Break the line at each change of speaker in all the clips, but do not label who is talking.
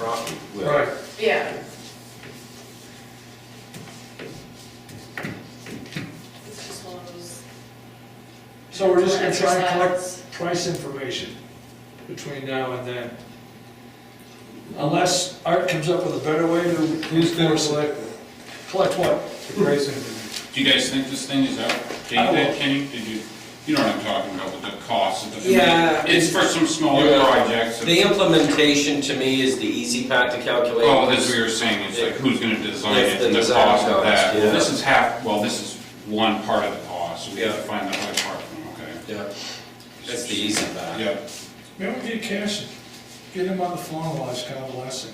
property.
Right,
Yeah. It's just one of those.
so we're just gonna try and collect
exercises.
price information between now and then. Unless Art comes up with a better way to.
Who's gonna
enforce it.
select
Collect what?
the price information?
Do you guys think this thing is up? Did
I
you,
will.
Kenny, did you, you know what I'm talking about with the cost of the.
Yeah.
It's for some smaller
Yeah.
projects.
The implementation to me is the easy part to calculate.
Well, as we were saying, it's like who's gonna design
It's
it
the
and the
design
cost of that.
cost,
Well,
yeah.
this is half, well, this is one part of the cost, so we have to
Yeah.
find the other part, okay?
Yeah, that's the easy part.
Yep,
Maybe we get Cashin, get him on the phone while he's kind of blessing.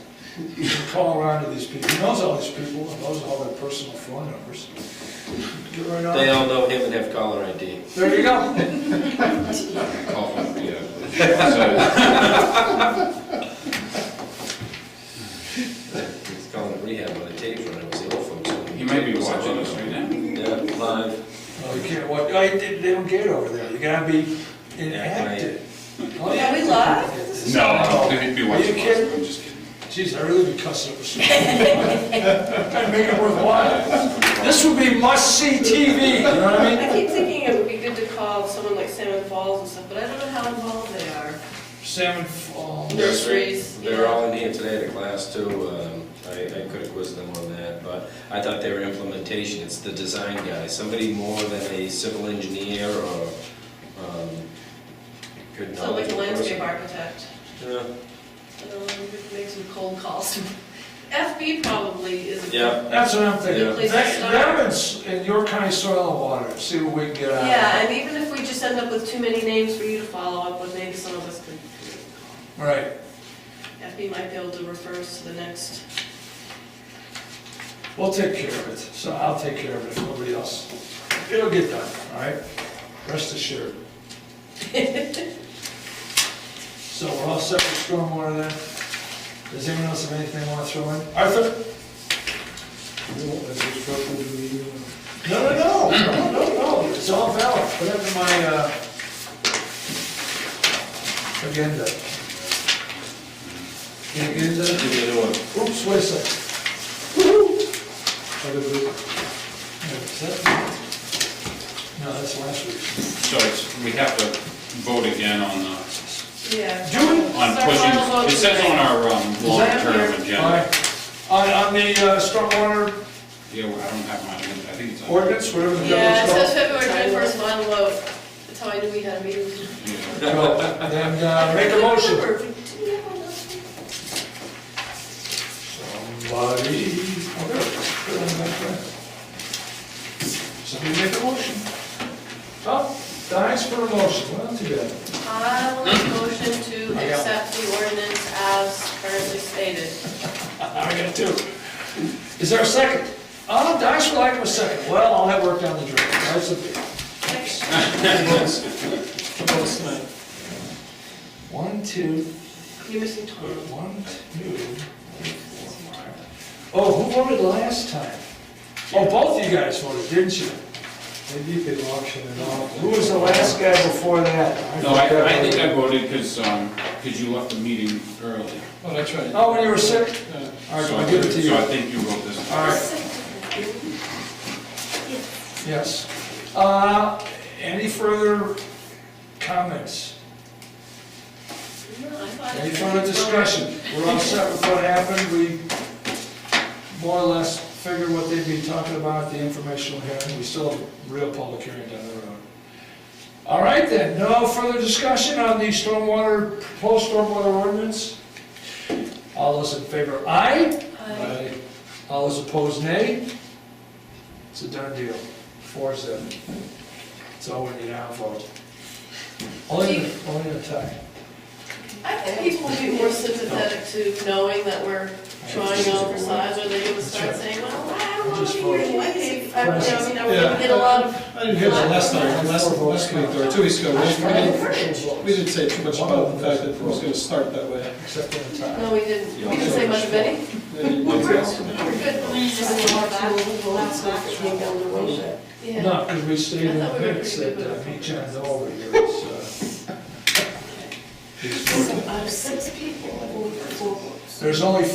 Call around to these people, he knows all these people, and knows all their personal phone numbers. Get right on.
They all know him and have caller ID.
There you go.
call them, yeah.
He's calling rehab on a tape when I was ill folks.
So, He might be watching us right now.
Yeah, live.
Oh, you can't watch, I, they they don't get over there, you gotta be inactive.
Are Oh, we live?
No, I don't think he'd be
Are you
watching us,
kidding?
I'm just kidding.
Jeez, I really be cussing over some. Gotta make it worthwhile. This would be must-see TV, you know what I mean?
I keep thinking it would be good to call someone like Salmon Falls and stuff, but I don't know how involved they are.
Salmon Falls.
Nurseries,
They're
yeah.
all in here today at a class too. Um, I, I could have quizzed them on that, but I thought they were implementation, it's the design guy. Somebody more than a civil engineer or, um, good
So like
knowledge
a landscape
person.
architect.
Yeah.
I don't know, we could make some cold calls. FB probably is. a good-
Yeah.
That's what I'm
Good
thinking.
place to
That,
start.
that one's in your county soil and water, see what we can get out of it.
Yeah, and even if we just end up with too many names for you to follow up with, maybe some of us could,
Right.
FB might be able to refer us to the next.
We'll take care of it, so I'll take care of it, if nobody else. It'll get done, all right? Rest assured. So we're all set with stormwater then? Does anyone else have anything they want to throw in? Arthur?
You know, as it's spoken to the, uh,
No, no, no, no, no, no, it's all valid, put it in my, uh, agenda. Agenda,
Give me a new one.
oops, wait a second.
other business.
Is that- No, that's last week.
So it's, we have to vote again on the
Yeah.
Do it
on pushing, it says on our um,
Is that up
long-term
here?
agenda.
Alright. On, on the uh, stormwater
Yeah, well, I don't have my, I think it's. on-
ordinance, whatever the
Yeah, it
devil's
says
called.
February twenty-first, final vote. That's how I knew we had a meeting.
Yeah.
Well, Then uh, make a motion. Somebody, oh, there it is. Put it on the back there. Somebody make a motion. Oh, dies for a motion, well, too bad.
I'll make a motion to
I got it.
accept the ordinance as currently stated.
I got two. Is there a second? Oh, dies for lack of a second. Well, all that worked down the drain. That's a big. One, two,
You're missing
Put
Tom.
One, two, three, four, five. Oh, who voted last time? Oh, both of you guys voted, didn't you?
Maybe you could auction it off.
Who was the last guy before that?
No, I, I think I voted because, um, because you left the meeting early.
Oh, that's right.
Oh, when you were sick?
Uh,
All right,
So
I'll give it to you.
So I think you wrote this.
All right. Yes. Uh, any further comments?
No, I thought-
Any further discussion? We're all set with what happened, we more or less figured what they'd be talking about at the informational hearing, we still have a real public hearing down the road. All right then, no further discussion on the stormwater, proposed stormwater ordinance? All those in favor, aye?
Aye.
All those opposed, nay? It's a done deal, four seven. That's all we need now, folks. Only, only a tie.
I think people would be more sympathetic to knowing that we're trying to oversize, or they would start saying, well, I don't want to be here anyway. I don't know, I mean, I would get a lot of,
I didn't hear the last time, last, last week or two weeks ago, we didn't, we didn't say too much about the fact that it was gonna start that way.
Except for the tie.
no, we didn't, we didn't say much of any. We're good. Yeah.
No, because we stayed in
I thought we were
Hicks
pretty
at
good with
uh,
our
Beach and Dover here, so. These-
Out of six people, I believe, four books.
There's only